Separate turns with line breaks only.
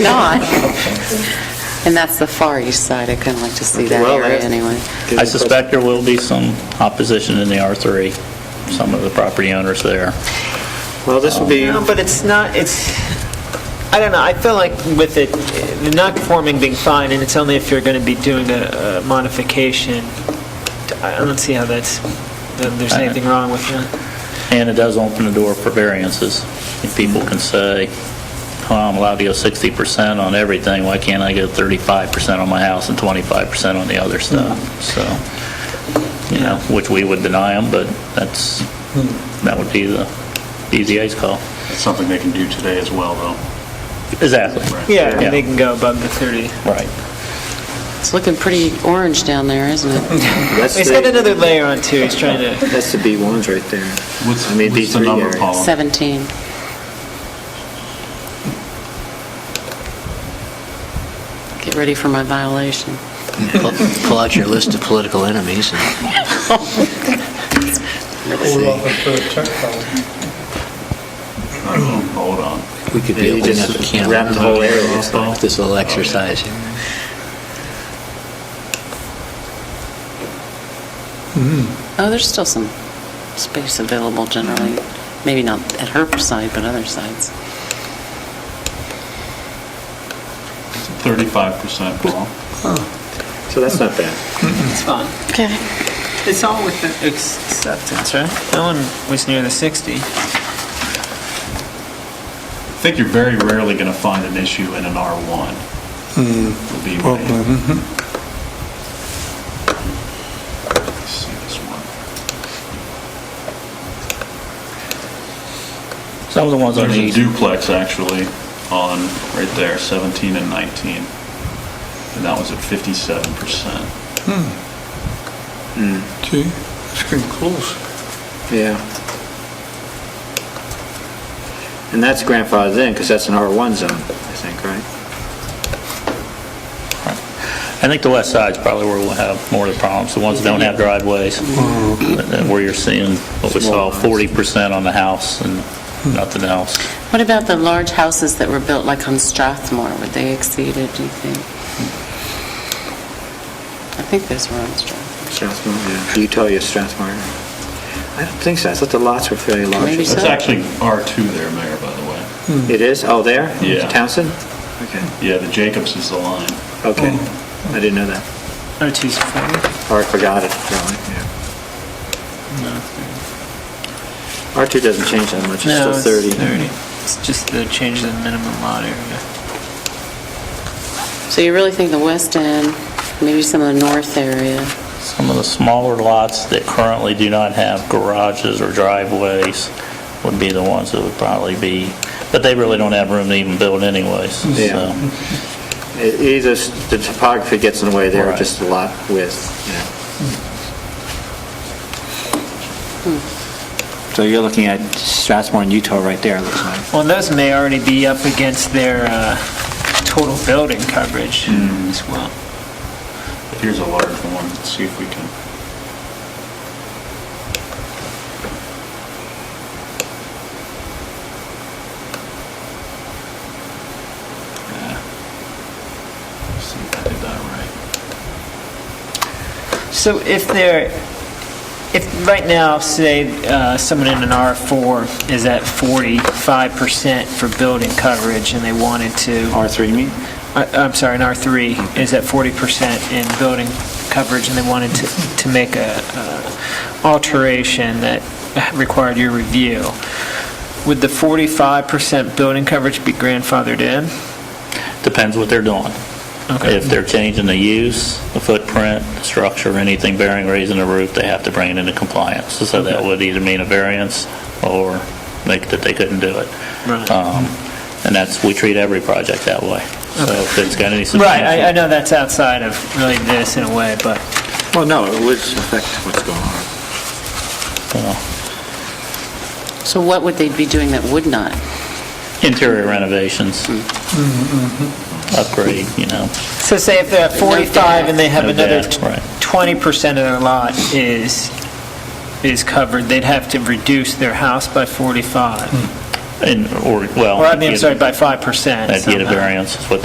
not. And that's the far east side, I kind of like to see that
Well,
area
that's-
anyway.
Good
I suspect there will be some opposition in the R3, some of the property owners there.
question. Well, this will be,
No, but it's not, it's, I don't know, I feel like with it, the non-conforming being fine, and it's only if you're going to be doing a a modification, I don't see how that's, that there's anything wrong with that.
And it does open the door for variances. If people can say, oh, I'm allowed to go 60% on everything, why can't I go 35% on my house and 25% on the other stuff? So, you know, which we would deny them, but that's, that would be the BZA's call.
It's something they can do today as well, though.
Exactly.
Yeah,
Yeah.
and they can go above the 30.
Right.
It's looking pretty orange down there, isn't it?
that's
He's got
the,
another layer on too, he's trying to,
that's the B1s right there.
What's
I mean,
what's the
B3
number,
area.
Paul?
17. Get ready for my violation.
Pull pull out your list of political enemies. and-
Hold off and put a check on
Hold on.
We could
Yeah,
be
you
opening
just
up a can
wrap
of
the whole area
worms
up, Paul.
with this little exercise. here.
Oh, there's still some space available generally, maybe not at her side, but other sides.
35%, Paul.
So that's not bad.
it's fine.
Okay.
It's all with the acceptance, right? No one was near the 60.
I think you're very rarely going to find an issue in an R1. Would be my- Let's see this one.
Some of the ones on the
There's a
east
duplex, actually, on, right there, 17 and 19. And that was at 57%.
it. Gee, it's getting close.
Yeah. And that's grandfathered in, because that's an R1 zone, I think, right?
I think the west side's probably where we'll have more of the problems, the ones that don't have driveways, and where you're seeing what we saw, 40% on the house and nothing else.
What about the large houses that were built like on Strathmore? Would they exceed it, do you think? I think those were on Strathmore.
Strathmore, yeah. Utah, you Strathmore. I don't think so. I thought the lots were fairly large.
Maybe so.
That's actually R2 there, Mayor, by the way.
It is? Oh, there?
Yeah.
Townsend? Okay,
Yeah, the Jacobs is the line.
okay.
Oh.
I didn't know that.
R2's 40.
Or I forgot it, really, yeah. R2 doesn't change that much, it's still
No,
30.
It's just the change in the minimum lot area.
So you really think the west end, maybe some of the north area?
Some of the smaller lots that currently do not have garages or driveways would be the ones that would probably be, but they really don't have room to even build anyways,
Yeah.
so.
E- Either s- the topography gets in the way there, or
Right.
just the lot width, you know. So you're looking at Strathmore and Utah right there, it looks like.
Well, and those may already be up against their uh, total building coverage
Hmm.
as well.
Here's a large one, let's see if we can. Yeah. See if I did that
So if they're, if right now, say, uh, someone in an R4 is at 45% for building coverage and they wanted to,
R3, you mean?
I- I'm sorry, an R3 is at 40% in building coverage and they wanted to, to make a uh, alteration that required your review, would the 45% building coverage be grandfathered in?
Depends what they're doing.
Okay.
If they're changing the use, the footprint, the structure, anything bearing, raising the roof, they have to bring it into compliance. So that would either mean a variance or make, that they couldn't do it.
Right.
Um, And that's, we treat every project that way. So if it's got any
Right, I, I
substantial...
know that's outside of really this in a way, but
Well, no, it would affect what's going on.
know,
So what would they be doing that would not?
Interior renovations,
Mm-hmm,
upgrade, you know.
so say if they're at 45 and they have
No
another
debt, right.
20% of their lot is, is covered, they'd have to reduce their house by 45.
and, or, well.
Or I mean,
you'd-
sorry, by 5%.
Hmm. That'd get a
somehow.
variance, is what